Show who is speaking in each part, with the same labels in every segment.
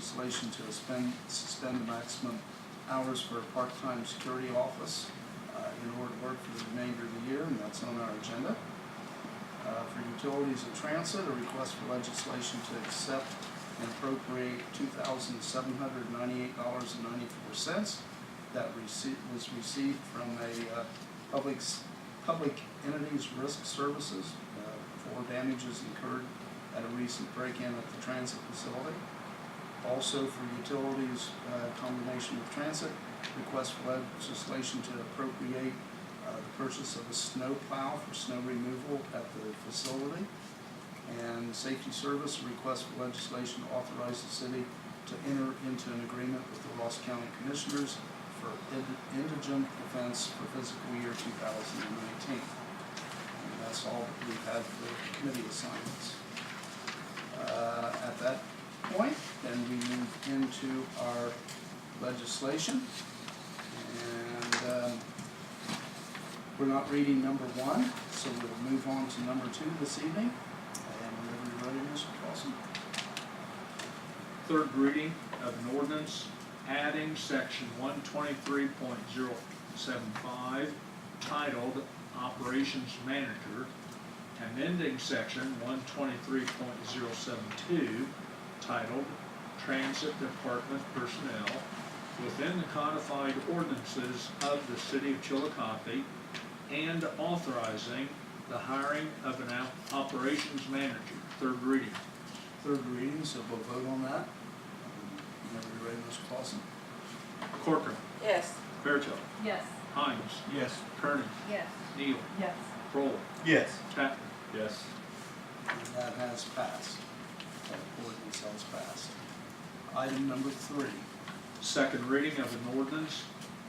Speaker 1: legislation to suspend, suspend the maximum hours for a part-time security office uh, in order to work for the remainder of the year, and that's on our agenda. Uh, For utilities and transit, a request for legislation to accept and appropriate two thousand seven hundred ninety-eight dollars and ninety-four cents that rece was received from a uh, public, s- public entities risk services uh, for damages incurred at a recent break-in at the transit facility. Also for utilities, uh, combination with transit, request for legislation to appropriate uh, the purchase of a snow plow for snow removal at the facility. And safety service, request for legislation to authorize the city to enter into an agreement with the Ross County Commissioners for ind- indigent defense for fiscal year two thousand and nineteen. And that's all that we've had for committee assignments. Uh, At that point, then we move into our legislation. And um, we're not reading number one, so we'll move on to number two this evening. And whenever you're ready, Mr. Clausen.
Speaker 2: Third reading of an ordinance adding section one twenty-three point zero seven five titled Operations Manager, amending section one twenty-three point zero seven two titled Transit Department Personnel within the codified ordinances of the city of Chillicothe and authorizing the hiring of an op- operations manager. Third reading.
Speaker 1: Third reading, so we'll vote on that. Um, Whenever you're ready, Mr. Clausen.
Speaker 2: Corcoran.
Speaker 3: Yes.
Speaker 2: Fairchild.
Speaker 4: Yes.
Speaker 2: Hines.
Speaker 5: Yes.
Speaker 2: Kernan.
Speaker 4: Yes.
Speaker 2: Neal.
Speaker 4: Yes.
Speaker 2: Prohl.
Speaker 5: Yes.
Speaker 2: Tatman.
Speaker 5: Yes.
Speaker 1: And that has passed. That ordinance has passed. Item number three.
Speaker 2: Second reading of an ordinance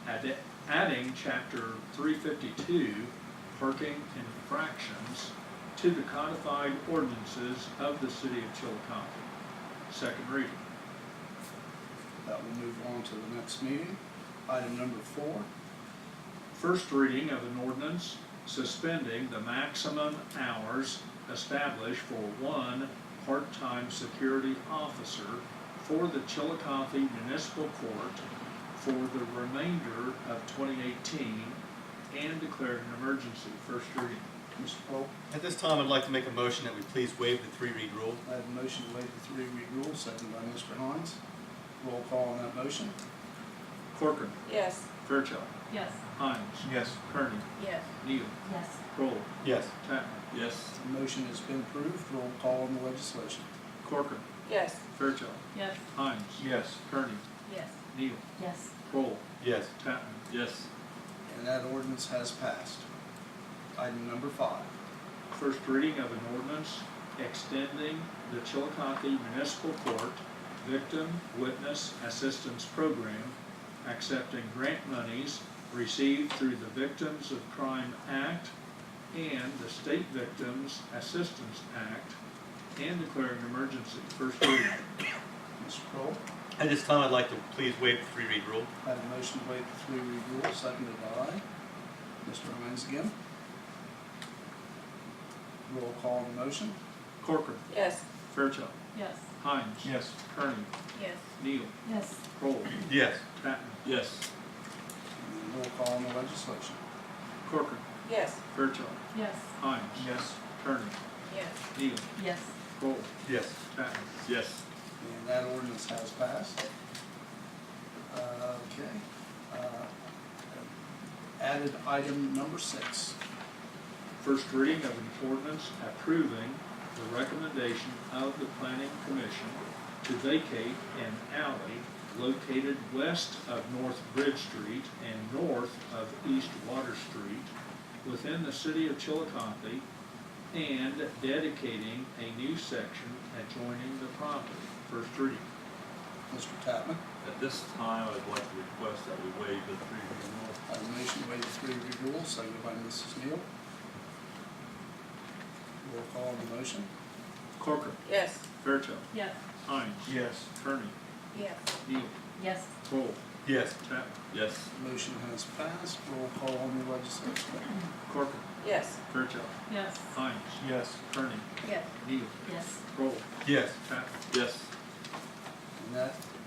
Speaker 2: add- adding chapter three fifty-two parking infractions to the codified ordinances of the city of Chillicothe. Second reading.
Speaker 1: That will move on to the next meeting. Item number four.
Speaker 2: First reading of an ordinance suspending the maximum hours established for one part-time security officer for the Chillicothe Municipal Court for the remainder of 2018 and declaring an emergency. First reading.
Speaker 1: Mr. Pope,
Speaker 5: At this time, I'd like to make a motion that we please waive the three-read rule.
Speaker 1: I have a motion to waive the three-read rule, seconded by Mr. Hines. Roll call on that motion.
Speaker 2: Corcoran,
Speaker 3: Yes.
Speaker 2: Fairchild,
Speaker 4: Yes.
Speaker 2: Hines,
Speaker 5: Yes.
Speaker 2: Kearney,
Speaker 3: Yes.
Speaker 2: Neal,
Speaker 4: Yes.
Speaker 2: Prohl,
Speaker 5: Yes.
Speaker 2: Tatman,
Speaker 5: Yes.
Speaker 1: The motion has been approved. Roll call on the legislation.
Speaker 2: Corcoran,
Speaker 3: Yes.
Speaker 2: Fairchild,
Speaker 4: Yes.
Speaker 2: Hines,
Speaker 5: Yes.
Speaker 2: Kearney,
Speaker 4: Yes.
Speaker 2: Neal,
Speaker 4: Yes.
Speaker 2: Prohl,
Speaker 5: Yes.
Speaker 2: Tatman,
Speaker 5: Yes.
Speaker 1: And that ordinance has passed. Item number five.
Speaker 2: First reading of an ordinance extending the Chillicothe Municipal Court Victim Witness Assistance Program, accepting grant monies received through the Victims of Crime Act and the State Victims Assistance Act, and declaring an emergency. First reading.
Speaker 1: Mr. Pope,
Speaker 5: At this time, I'd like to please waive the three-read rule.
Speaker 1: I have a motion to waive the three-read rule, seconded by Mr. Hines again. Roll call on the motion.
Speaker 2: Corcoran,
Speaker 3: Yes.
Speaker 2: Fairchild,
Speaker 4: Yes.
Speaker 2: Hines.
Speaker 5: Yes.
Speaker 2: Kearney,
Speaker 3: Yes.
Speaker 2: Neal,
Speaker 4: Yes.
Speaker 2: Kroll,
Speaker 5: Yes.
Speaker 2: Tatman,
Speaker 5: Yes.
Speaker 1: And Roll call on the legislation.
Speaker 2: Corcoran,
Speaker 3: Yes.
Speaker 2: Fairchild,
Speaker 4: Yes.
Speaker 2: Hines.
Speaker 5: Yes.
Speaker 2: Kearney,
Speaker 3: Yes.
Speaker 2: Neal,
Speaker 4: Yes.
Speaker 2: Kroll,
Speaker 5: Yes.
Speaker 2: Tatman.
Speaker 5: Yes.
Speaker 1: And that ordinance has passed. Uh, Okay. Uh, Added item number six.
Speaker 2: First reading of an ordinance approving the recommendation of the planning commission to vacate an alley located west of North Bridge Street and north of East Water Street within the city of Chillicothe and dedicating a new section adjoining the property. First reading.
Speaker 1: Mr. Tapman,
Speaker 6: At this time, I'd like to request that we waive the three reading rule.
Speaker 1: I have a motion to waive the three-read rule, seconded by Mrs. Neal. Roll call on the motion.
Speaker 2: Corcoran,
Speaker 3: Yes.
Speaker 2: Fairchild,
Speaker 4: Yes.
Speaker 2: Hines,
Speaker 5: Yes.
Speaker 2: Kearney,
Speaker 3: Yes.
Speaker 2: Neal,
Speaker 4: Yes.
Speaker 2: Cole,
Speaker 5: Yes.
Speaker 2: Tatman,
Speaker 6: Yes,
Speaker 1: Motion has passed. Roll call on the legislation.
Speaker 2: Corcoran,
Speaker 3: Yes.
Speaker 2: Fairchild,
Speaker 4: Yes.
Speaker 2: Hines,
Speaker 5: Yes.
Speaker 2: Kearney,
Speaker 3: Yes.
Speaker 2: Neal,
Speaker 4: Yes.
Speaker 2: Kroll,
Speaker 5: Yes.
Speaker 2: Tatman,
Speaker 6: yes,
Speaker 1: And and that